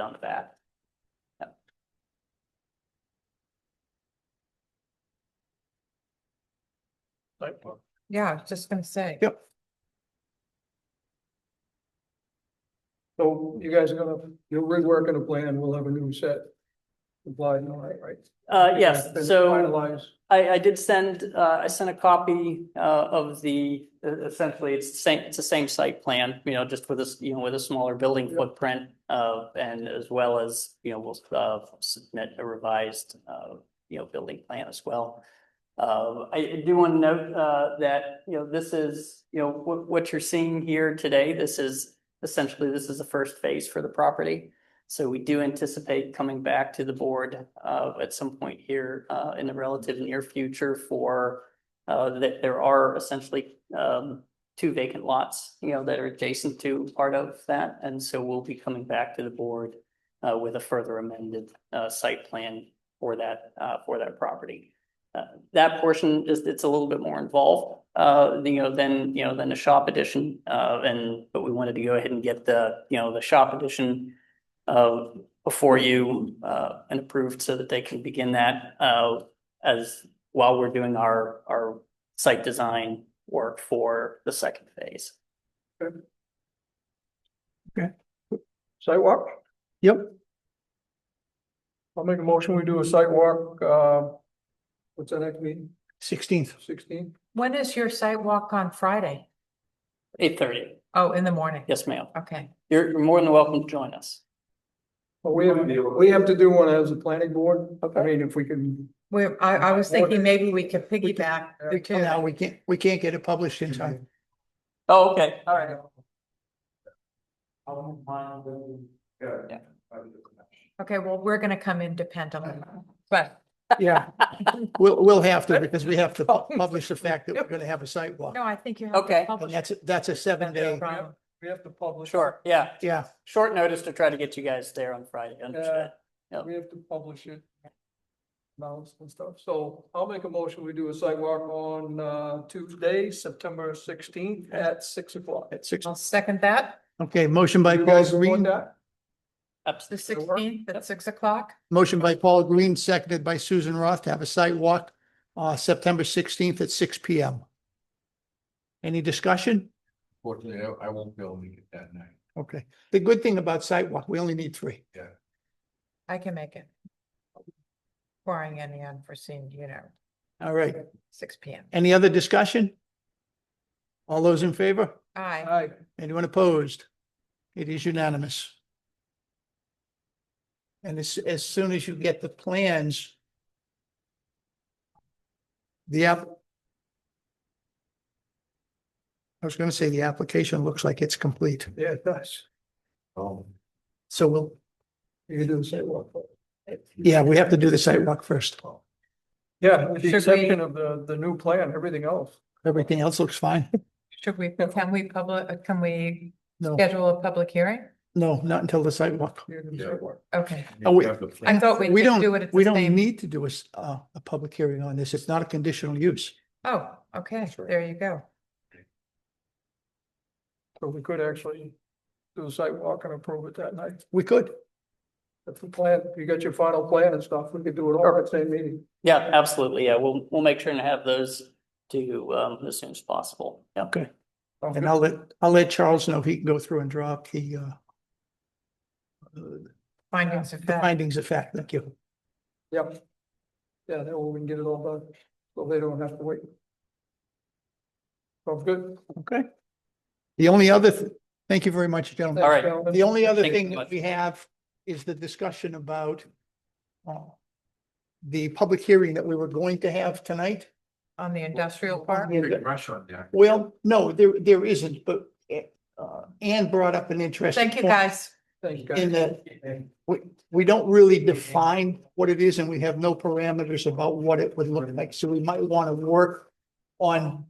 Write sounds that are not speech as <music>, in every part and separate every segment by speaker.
Speaker 1: on the back.
Speaker 2: Yeah, I was just gonna say.
Speaker 3: Yep.
Speaker 4: So you guys are gonna, you're reworking a plan, we'll have a new set. Applied, all right, right?
Speaker 1: Uh, yes,
Speaker 4: Been
Speaker 1: so
Speaker 4: Finalized,
Speaker 1: I, I did send, uh, I sent a copy, uh, of the, uh, essentially, it's the same, it's the same site plan, you know, just with this, you know, with a smaller building
Speaker 4: Yeah.
Speaker 1: footprint, uh, and as well as, you know, we'll, uh, submit a revised, uh, you know, building plan as well. Uh, I I do want to note, uh, that, you know, this is, you know, what, what you're seeing here today, this is essentially, this is the first phase for the property. So we do anticipate coming back to the board, uh, at some point here, uh, in the relative near future for, uh, that there are essentially, um, two vacant lots, you know, that are adjacent to part of that. And so we'll be coming back to the board, uh, with a further amended, uh, site plan for that, uh, for that property. Uh, that portion just, it's a little bit more involved, uh, you know, than, you know, than the shop edition. Uh, and, but we wanted to go ahead and get the, you know, the shop edition uh, before you, uh, and approved so that they can begin that, uh, as, while we're doing our, our site design work for the second phase.
Speaker 4: sidewalk,
Speaker 3: Yep,
Speaker 4: I'll make a motion, we do a sidewalk, uh. What's that next meeting,
Speaker 3: sixteenth.
Speaker 4: sixteen?
Speaker 2: When is your site walk on Friday?
Speaker 1: Eight thirty,
Speaker 2: Oh, in the morning?
Speaker 1: yes, ma'am.
Speaker 2: Okay,
Speaker 1: You're, you're more than welcome to join us.
Speaker 4: Well, we have, we have to do one as a planning board, I mean, if we can,
Speaker 2: we're, I, I was
Speaker 4: Morning.
Speaker 2: thinking maybe we could piggyback
Speaker 4: Yeah.
Speaker 2: the two.
Speaker 3: Now, we can't, we can't get it published in time.
Speaker 1: Oh, okay, all right.
Speaker 4: yeah.
Speaker 2: Okay, well, we're gonna come independently, but
Speaker 3: <laughs> Yeah. <laughs> Oh. We'll, we'll have to because we have to pu- publish the fact that we're going to have a site walk.
Speaker 2: no, I think you have. to
Speaker 1: Okay.
Speaker 3: And
Speaker 2: publish
Speaker 3: that's, that's a seven
Speaker 2: it,
Speaker 3: day,
Speaker 2: Brian.
Speaker 4: We have to publish.
Speaker 1: Sure, yeah,
Speaker 3: yeah,
Speaker 1: short notice to try to get you guys there on Friday, understood.
Speaker 4: We have to publish it. Mounts and stuff, so I'll make a motion, we do a sidewalk on uh Tuesday, September sixteenth at six o'clock.
Speaker 3: at six.
Speaker 2: I'll second that,
Speaker 3: Okay, motion by
Speaker 4: You
Speaker 3: Paul
Speaker 4: guys want
Speaker 3: Green,
Speaker 4: that?
Speaker 2: the
Speaker 1: Absolutely. It'll work.
Speaker 2: sixteenth at six o'clock.
Speaker 3: motion by Paul Green, seconded by Susan Roth to have a site walk uh, September sixteenth at six P M. Any discussion?
Speaker 5: Fortunately, I- I won't be able to get that night.
Speaker 3: Okay. The good thing about site walk, we only need three.
Speaker 2: I can make it. Barring any unforeseen, you know,
Speaker 3: All right.
Speaker 2: six P M.
Speaker 3: Any other discussion? All those in favor? Uh,
Speaker 2: Aye,
Speaker 4: Aye.
Speaker 3: Anyone opposed? It is unanimous. And as, as soon as you get the plans, the app. I was gonna say the application looks like it's complete,
Speaker 4: yeah, it does.
Speaker 5: Oh.
Speaker 3: so we'll,
Speaker 4: You can do the sidewalk.
Speaker 3: yeah, we have to do the site walk first.
Speaker 4: Yeah, with
Speaker 2: Should
Speaker 4: the
Speaker 2: we-
Speaker 4: exception of the the new plan, everything else.
Speaker 3: Everything else looks fine.
Speaker 2: should we, can we public, can we
Speaker 3: No,
Speaker 2: schedule a public hearing?
Speaker 3: no, not until the site walk.
Speaker 4: you can do
Speaker 5: Yeah.
Speaker 4: sidewalk.
Speaker 2: Okay,
Speaker 3: Oh, wait.
Speaker 2: I thought we
Speaker 3: We
Speaker 2: could do it
Speaker 3: don't,
Speaker 2: at the
Speaker 3: we don't
Speaker 2: same.
Speaker 3: need to do a, s- uh, a public hearing on this. It's not a conditional use.
Speaker 2: Oh, okay,
Speaker 5: Sure.
Speaker 2: there you go.
Speaker 4: So we could actually do a sidewalk and approve it that night.
Speaker 3: We could.
Speaker 4: If the plan, you got your final plan and stuff, we could do it all at the same meeting.
Speaker 1: Yeah, absolutely. Yeah, we'll, we'll make sure and have those to you um, as soon as possible. Yeah.
Speaker 3: Okay. And I'll let, I'll let Charles know he can go through and drop the uh. uh,
Speaker 2: Findings of
Speaker 3: the
Speaker 2: fact.
Speaker 3: Findings of fact, thank you.
Speaker 4: Yep. Yeah, that way we can get it all done, so they don't have to wait. Sounds good.
Speaker 3: Okay. The only other, th- thank you very much, gentlemen.
Speaker 4: Thanks,
Speaker 1: right.
Speaker 4: gentlemen.
Speaker 3: The only other
Speaker 1: Thank you
Speaker 3: thing
Speaker 1: so
Speaker 3: that
Speaker 1: much.
Speaker 3: we have is the discussion about uh, the public hearing that we were going to have tonight.
Speaker 2: On the industrial park?
Speaker 5: Big rush on that.
Speaker 3: Well, no, there, there isn't, but uh, Ann brought up an interesting.
Speaker 2: Thank you,
Speaker 3: point
Speaker 2: guys.
Speaker 4: Thanks, guys.
Speaker 3: In that we, we don't really define what it is and we have no parameters about what it would look like. So we might want to work on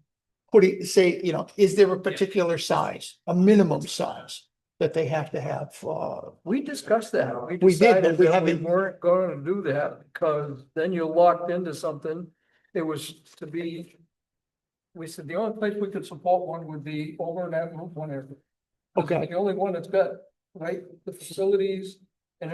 Speaker 3: putting, say, you know, is there a particular size, a minimum size that they have to have? Uh,
Speaker 4: We discussed that.
Speaker 3: We did, but
Speaker 4: decided
Speaker 3: we
Speaker 4: that
Speaker 3: haven't-
Speaker 4: Weren't gonna do that, because then you're locked into something. It was to be. We said the only place we could support one would be over in that roof one area. This is
Speaker 3: Okay.
Speaker 4: The only one that's got, right, the facilities,